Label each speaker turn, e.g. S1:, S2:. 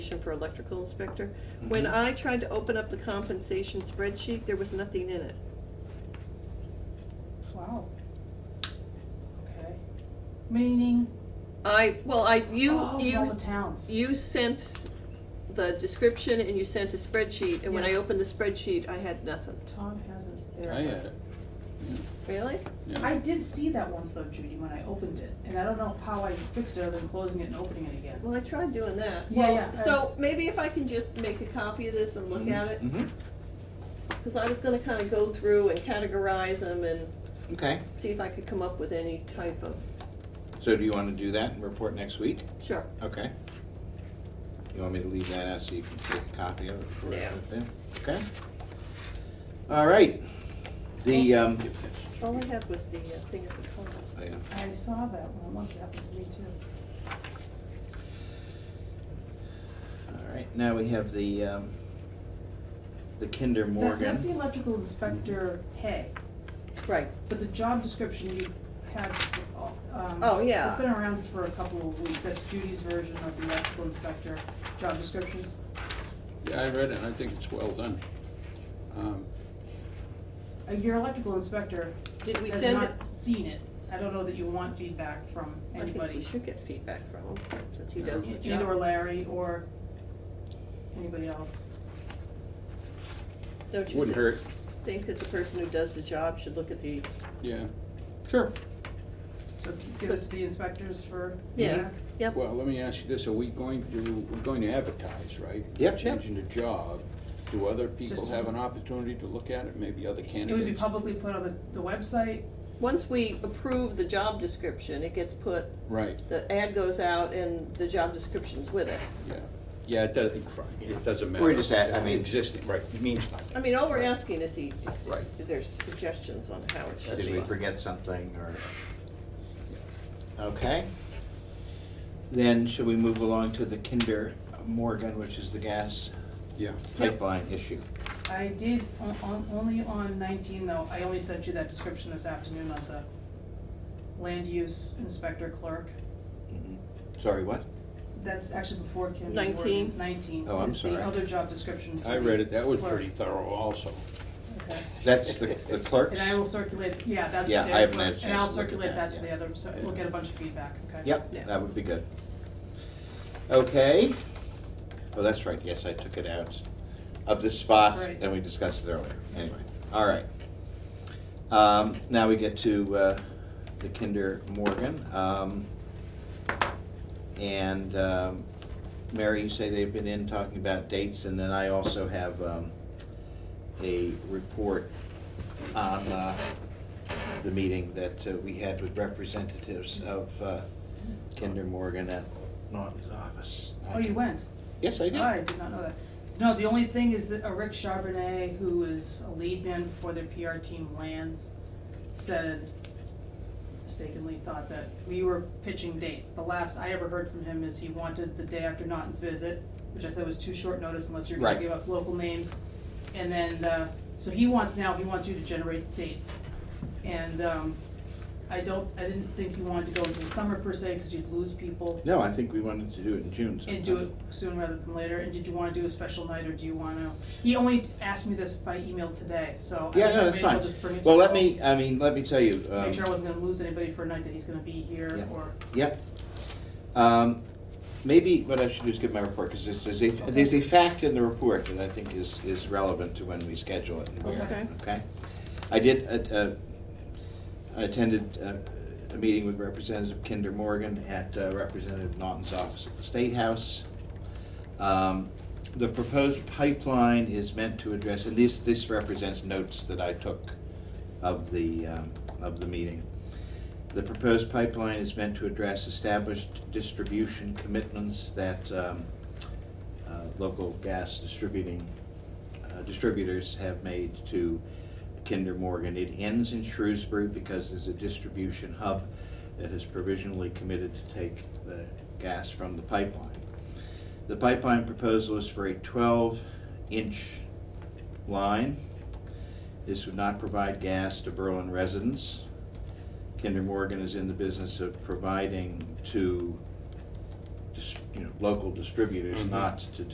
S1: position for electrical inspector.
S2: Mm-hmm.
S1: When
S3: Mhm.
S1: I tried to open up the compensation spreadsheet, there was nothing in it.
S2: Wow. Okay. Meaning,
S1: I, well, I, you,
S2: oh, all
S1: you,
S2: the towns.
S1: you sent the description and you sent a spreadsheet, and when I
S2: Yes.
S1: opened the spreadsheet, I had nothing.
S2: Tom has it there.
S4: Oh,
S3: I had it.
S1: Really?
S3: Oh, Yeah.
S2: I did see that once though, Judy, when I opened it, and I don't know how I fixed it other than closing it and opening it again.
S1: Well, I tried doing that.
S2: Yeah,
S1: Well,
S2: yeah, Mm-hmm. I-
S1: So maybe if I can just make a copy of this and look at it,
S3: Mhm.
S2: Mm-hmm.
S1: because I was gonna kind of go through and categorize them and
S3: Okay,
S1: see if I could come up with any type of,
S3: so do you wanna do that and report next week?
S1: sure.
S3: Okay. You want me to leave that out so you can take a copy of it? for us
S1: Yeah.
S3: up there? Okay. All right, the, um,
S1: All I had was the uh, thing at the top.
S3: oh, yeah.
S2: I saw that one once, it happened to me too.
S3: all right, now we have the, um, the Kinder
S2: That- That's the
S3: Morgan.
S2: electrical inspector pay,
S1: Right,
S2: but the job description you had, um.
S1: Oh, yeah.
S2: It's been around for a couple of weeks, that's Judy's version of the electrical inspector job description.
S4: Yeah, I read it, and I think it's well done. Um,
S2: Uh, Your electrical inspector
S1: did we
S2: has
S1: send it?
S2: not seen it, I don't know that you want feedback from
S1: I think we
S2: anybody,
S1: should get feedback from him, since he
S4: Yeah.
S1: does the job.
S2: and or Larry or anybody else.
S1: Don't you
S4: Wouldn't hurt,
S1: think that the person who does the job should look at the,
S4: yeah.
S3: Sure.
S2: So give us the inspectors for.
S1: Yeah.
S2: feedback.
S1: yep,
S4: Well, let me ask you this, are we going to, we're going to advertise, right?
S3: Yep.
S4: Changing the job, do other people
S2: Just-
S4: have an opportunity to look at it, maybe other
S2: It would be
S4: candidates?
S2: publicly put on the, the website,
S1: once we approve the job description, it gets put,
S4: Right,
S1: the ad goes out and the job description's with it.
S4: yeah, yeah, it does, it doesn't matter.
S3: We're just at- I mean-
S4: Existing, right, it means nothing.
S1: I mean, all we're asking is he,
S4: Right.
S1: is there suggestions on how it should
S3: Did
S1: be.
S3: we forget something or? Okay. Then should we move along to the Kinder Morgan, which is the gas
S4: Yeah,
S3: pipeline issue?
S2: I did, on, on, only on nineteen though, I only sent you that description this afternoon of the land use inspector clerk.
S3: Mhm. Sorry, what?
S2: That's actually before Kim.
S1: 19?
S2: Nineteen.
S3: Oh, I'm
S2: is
S3: sorry.
S2: The other job description. for
S4: I read it, that was
S2: clerk.
S4: pretty thorough also.
S2: Okay.
S3: That's the the clerk's?
S2: And I will circulate, yeah, that's the
S3: Yeah, I
S2: data
S3: haven't had a
S2: clerk,
S3: chance
S2: And I'll
S3: to look at
S2: circulate
S3: that,
S2: that to
S3: yeah.
S2: the other, so we'll
S4: Yeah.
S2: get a bunch of feedback, okay?
S1: Yeah.
S3: Yep, that would be good. Okay. Oh, that's right, yes, I took it out of this spot,
S2: Right.
S3: and we discussed it earlier, anyway, all right. Um, now we get to, uh, the Kinder Morgan, um, and, um, Mary, you say they've been in talking about dates, and then I also have, um, a report on, uh, the meeting that uh, we had with representatives of, uh, Kinder Morgan at Norton's office.
S2: Oh, you went?
S3: Yes, I
S2: I
S3: did.
S2: did not know that. No, the only thing is that uh, Rick Charbonnet, who is a lead man for their PR team Lands, said, mistakenly thought that we were pitching dates. The last I ever heard from him is he wanted the day after Naughton's visit, which I said was too short notice unless you're gonna
S3: Right.
S2: give up local names. And then, uh, so he wants now, he wants you to generate dates. And, um, I don't, I didn't think he wanted to go into the summer per se, cause you'd lose people.
S3: No, I think we wanted to do it in June sometime.
S2: And do it soon rather than later, and did you wanna do a special night, or do you wanna, he only asked me this by email today, so. I
S3: Yeah,
S2: think I
S3: no, that's
S2: may as well
S3: fine.
S2: just bring it to
S3: Well, let
S2: him.
S3: me, I mean, let me tell you. um,
S2: Make sure I wasn't gonna lose anybody for a night that he's gonna be here,
S3: Yeah.
S2: or,
S3: Yep. Um, Maybe what I should do is give my report, because there's, there's a, there's a fact in the report that I think is, is relevant to when we schedule it and where,
S1: Okay.
S3: okay? I did, uh, uh, I attended uh, a meeting with Representative Kinder Morgan at uh, Representative Naughton's office at the State House. Um, The proposed pipeline is meant to address, and this, this represents notes that I took of the, um, of the meeting. The proposed pipeline is meant to address established distribution commitments that um, uh, local gas distributing, uh, distributors have made to Kinder Morgan. It ends in Shrewsbury because there's a distribution hub that has provisionally committed to take the gas from the pipeline. The pipeline proposal is for a 12-inch line. This would not provide gas to Berlin residents. Kinder Morgan is in the business of providing to dis- you know, local distributors,
S4: Mhm.
S3: not to